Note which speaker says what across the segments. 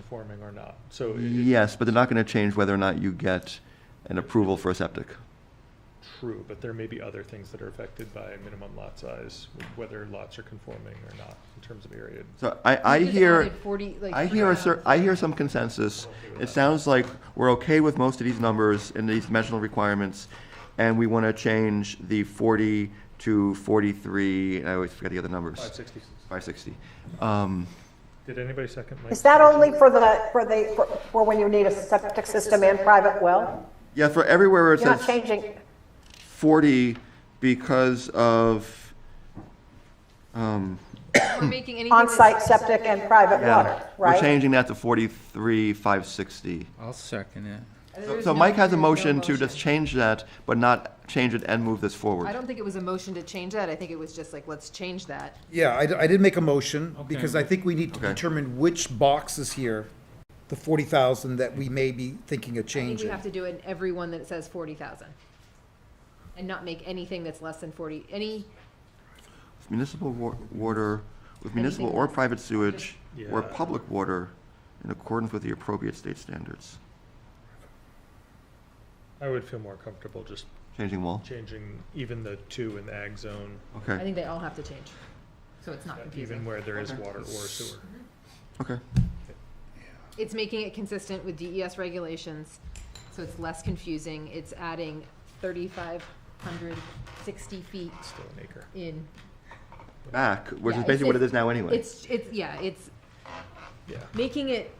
Speaker 1: conforming or not. So it-
Speaker 2: Yes, but they're not going to change whether or not you get an approval for a septic.
Speaker 1: it's true, but there may be other things that are affected by minimum lot size, whether lots are conforming or not in terms of area.
Speaker 2: So I, I
Speaker 3: You just
Speaker 2: hear,
Speaker 3: added 40, like,
Speaker 2: I hear a cer, I hear some consensus. It sounds like we're okay with most of these numbers and these dimensional requirements, and we want to change the forty to forty-three, and I always forget the other
Speaker 1: Five
Speaker 2: numbers,
Speaker 1: sixty,
Speaker 2: five sixty. Um,
Speaker 1: did anybody second my?
Speaker 4: Is that only for the, for the, for- for when you need a septic system and private well?
Speaker 2: yeah, for everywhere where it
Speaker 4: You're not
Speaker 2: says
Speaker 4: changing,
Speaker 2: forty because of, um,
Speaker 3: We're making anything. that's-
Speaker 4: on-site septic and private
Speaker 2: yeah.
Speaker 4: water,
Speaker 2: We're
Speaker 4: right?
Speaker 2: changing that to forty-three, five sixty.
Speaker 5: I'll second it.
Speaker 3: There's
Speaker 2: So
Speaker 3: no-
Speaker 2: Mike has a
Speaker 3: there's no
Speaker 2: motion to just change that, but not change it and move this forward.
Speaker 3: I don't think it was a motion to change that. I think it was just like, let's change that.
Speaker 6: Yeah, I, d- I did make a motion, because I think we need to
Speaker 2: Okay.
Speaker 6: determine which box is here, the forty thousand that we may be thinking of
Speaker 3: I think we
Speaker 6: changing.
Speaker 3: have to do it in every one that says forty thousand. And not make anything that's less than forty, any,
Speaker 2: Municipal wa- water, with municipal
Speaker 3: Anything
Speaker 2: or
Speaker 3: else?
Speaker 2: private sewage, or
Speaker 1: Yeah.
Speaker 2: public water in accordance with the appropriate state standards.
Speaker 1: I would feel more comfortable just
Speaker 2: Changing wall,
Speaker 1: changing even the two in the ag zone, uh,
Speaker 3: I
Speaker 2: okay,
Speaker 3: think they all have to change. So it's not
Speaker 1: even
Speaker 3: confusing.
Speaker 1: where there is
Speaker 2: Okay.
Speaker 1: water or sewer.
Speaker 2: okay.
Speaker 3: It's making it consistent with DES regulations, so it's less confusing. It's adding thirty-five hundred sixty feet
Speaker 1: It's still an acre.
Speaker 3: in.
Speaker 2: Back, which is
Speaker 3: Yeah, it's-
Speaker 2: basically what it
Speaker 3: it's-
Speaker 2: is now anyway.
Speaker 3: It's, it's, yeah, it's
Speaker 1: Yeah.
Speaker 3: making it,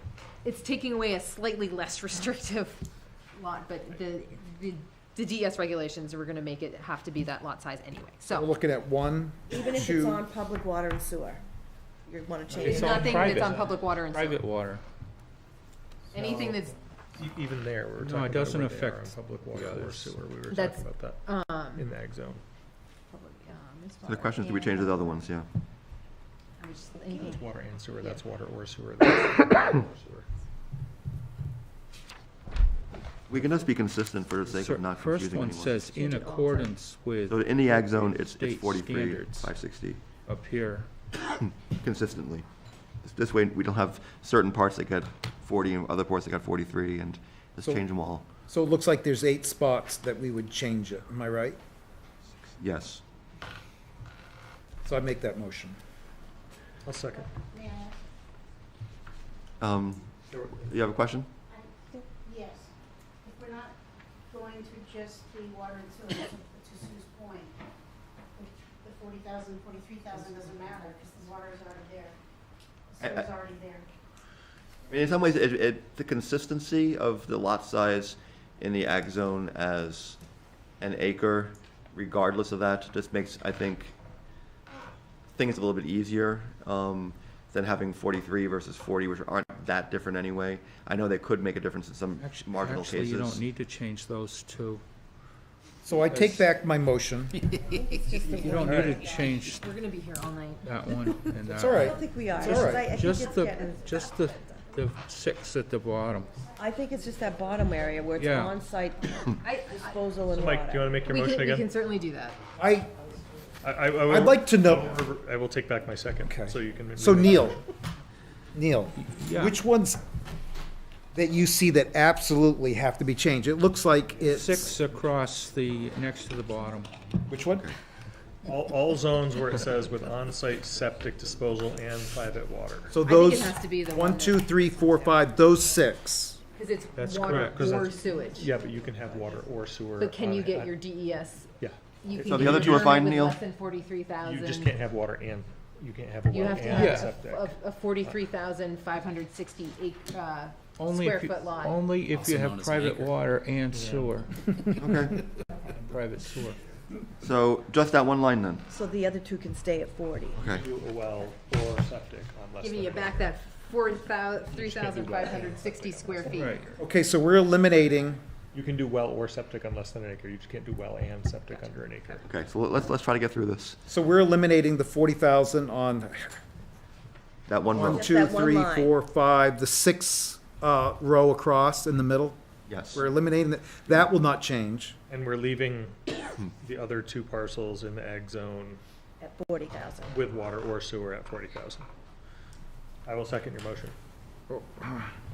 Speaker 3: it's taking away a slightly less restrictive lot, but the, the, the DES regulations are gonna make it have to be that lot size anyway,
Speaker 6: We're
Speaker 3: so.
Speaker 6: looking at one,
Speaker 7: Even if it's
Speaker 6: two-
Speaker 7: on public water and sewer, you want to change
Speaker 5: It's
Speaker 7: it.
Speaker 5: on
Speaker 3: Nothing that's
Speaker 5: private.
Speaker 3: on public water and sewer,
Speaker 5: Private water.
Speaker 3: anything that's,
Speaker 1: E- Even there, we were
Speaker 5: No,
Speaker 1: talking
Speaker 5: it
Speaker 1: about
Speaker 5: doesn't
Speaker 1: where they are on
Speaker 5: affect
Speaker 1: public
Speaker 5: the
Speaker 1: water or
Speaker 5: others.
Speaker 1: sewer, we were
Speaker 3: That's-
Speaker 1: talking about that
Speaker 3: um.
Speaker 1: in the ag zone.
Speaker 3: public, uh,
Speaker 2: So
Speaker 3: municipal
Speaker 2: The question is, do we
Speaker 3: and-
Speaker 2: change the other ones, yeah?
Speaker 3: I was just thinking,
Speaker 1: Water and sewer,
Speaker 3: Yeah.
Speaker 1: that's water or sewer. that's water or sewer.
Speaker 2: We can just be consistent for the sake
Speaker 5: Cer-
Speaker 2: of not
Speaker 5: First
Speaker 2: confusing
Speaker 5: one
Speaker 2: anyone.
Speaker 5: says in accordance with
Speaker 2: So in the ag zone, it's, it's
Speaker 5: State
Speaker 2: forty-three,
Speaker 5: standards.
Speaker 2: five sixty,
Speaker 5: up here.
Speaker 2: consistently. This- This way, we don't have certain parts that get forty and other parts that got forty-three, and just
Speaker 6: So-
Speaker 2: change them all,
Speaker 6: so it looks like there's eight spots that we would change it, am I right?
Speaker 2: yes.
Speaker 6: So I make that motion.
Speaker 1: I'll second.
Speaker 2: Um,
Speaker 1: There were-
Speaker 2: you have a question?
Speaker 8: I think, yes, if we're not going to just the water and sewer, to to Sue's point, the- the forty thousand, forty-three thousand doesn't matter, because the water is already there. The
Speaker 2: I- I-
Speaker 8: sewer's already there.
Speaker 2: I mean, in some ways, it, it, the consistency of the lot size in the ag zone as an acre, regardless of that, just makes, I think, things a little bit easier, um, than having forty-three versus forty, which aren't that different anyway. I know they could make a difference in some
Speaker 5: Actu-
Speaker 2: marginal
Speaker 5: Actually, you don't
Speaker 2: cases.
Speaker 5: need to change those two.
Speaker 6: So I take back my motion.
Speaker 5: You don't need to change
Speaker 3: we're gonna be here all night.
Speaker 5: that one and that.
Speaker 6: It's all
Speaker 7: I
Speaker 6: right.
Speaker 7: don't think we are.
Speaker 6: all right.
Speaker 7: I- I think
Speaker 5: Just
Speaker 7: it's
Speaker 5: the,
Speaker 7: getting-
Speaker 5: just the, the six at the bottom.
Speaker 7: I think it's just that bottom area where it's
Speaker 5: Yeah.
Speaker 7: on-site
Speaker 3: I, I,
Speaker 7: disposal and
Speaker 1: Mike, do you
Speaker 7: water.
Speaker 1: want to make your
Speaker 3: we
Speaker 1: motion
Speaker 3: can, we can
Speaker 1: again?
Speaker 3: certainly do that.
Speaker 6: I,
Speaker 1: I, I, I
Speaker 6: I'd
Speaker 1: will-
Speaker 6: like to know,
Speaker 1: I will take back my second,
Speaker 6: Okay.
Speaker 1: so you can.
Speaker 6: so Neil, Neil,
Speaker 5: Yeah.
Speaker 6: which ones that you see that absolutely have to be changed? It looks like it's.
Speaker 5: Six across the, next to the bottom.
Speaker 6: Which one?
Speaker 1: All, all zones where it says with on-site septic disposal and private water.
Speaker 6: So
Speaker 3: I think it
Speaker 6: those.
Speaker 3: has to be the one
Speaker 6: One,
Speaker 3: that-
Speaker 6: two, three, four, five, those six.
Speaker 3: Cause
Speaker 1: That's
Speaker 3: it's water
Speaker 1: correct, 'cause
Speaker 3: or
Speaker 1: that's-
Speaker 3: sewage.
Speaker 1: Yeah, but you can have water or sewer.
Speaker 3: But can
Speaker 1: on
Speaker 3: you
Speaker 1: it. I-
Speaker 3: get your DES?
Speaker 1: Yeah,
Speaker 3: You
Speaker 2: So
Speaker 3: can
Speaker 2: the
Speaker 3: get
Speaker 2: other two are
Speaker 3: determined
Speaker 2: fine,
Speaker 3: with
Speaker 2: Neil?
Speaker 3: Less than forty-three
Speaker 1: you
Speaker 3: thousand.
Speaker 1: just can't have water and, you can't have a
Speaker 3: You
Speaker 1: well
Speaker 3: have to
Speaker 1: and
Speaker 3: have
Speaker 1: septic.
Speaker 3: a, a forty-three thousand five hundred sixty acre, uh,
Speaker 5: Only
Speaker 3: square
Speaker 5: if you-
Speaker 3: foot lot.
Speaker 5: Only if
Speaker 9: Also
Speaker 5: you
Speaker 9: known
Speaker 5: have
Speaker 9: as an
Speaker 5: private
Speaker 9: acre.
Speaker 5: water and sewer,
Speaker 2: Okay,
Speaker 5: and private sewer.
Speaker 2: so just that one line then,
Speaker 7: So the other two can stay at 40.
Speaker 2: okay.
Speaker 1: Do a well or septic on less
Speaker 3: Giving
Speaker 1: than
Speaker 3: you
Speaker 1: a-
Speaker 3: back that four thou, three thousand five hundred sixty square feet.
Speaker 5: Right.
Speaker 6: Okay, so we're eliminating,
Speaker 1: You can do well or septic on less than an acre. You just can't do well and septic under an acre.
Speaker 2: Okay, so let's, let's try to get through this,
Speaker 6: so we're eliminating the forty thousand on
Speaker 2: that one row,
Speaker 6: one,
Speaker 7: Just
Speaker 6: two,
Speaker 7: that one
Speaker 6: three,
Speaker 7: line.
Speaker 6: four, five, the six, uh, row across in the middle.
Speaker 2: yes.
Speaker 6: We're eliminating that. That will not change.
Speaker 1: And we're leaving the other two parcels in the ag zone
Speaker 7: At 40,000.
Speaker 1: with water or sewer at forty thousand. I will second your motion.
Speaker 5: oh,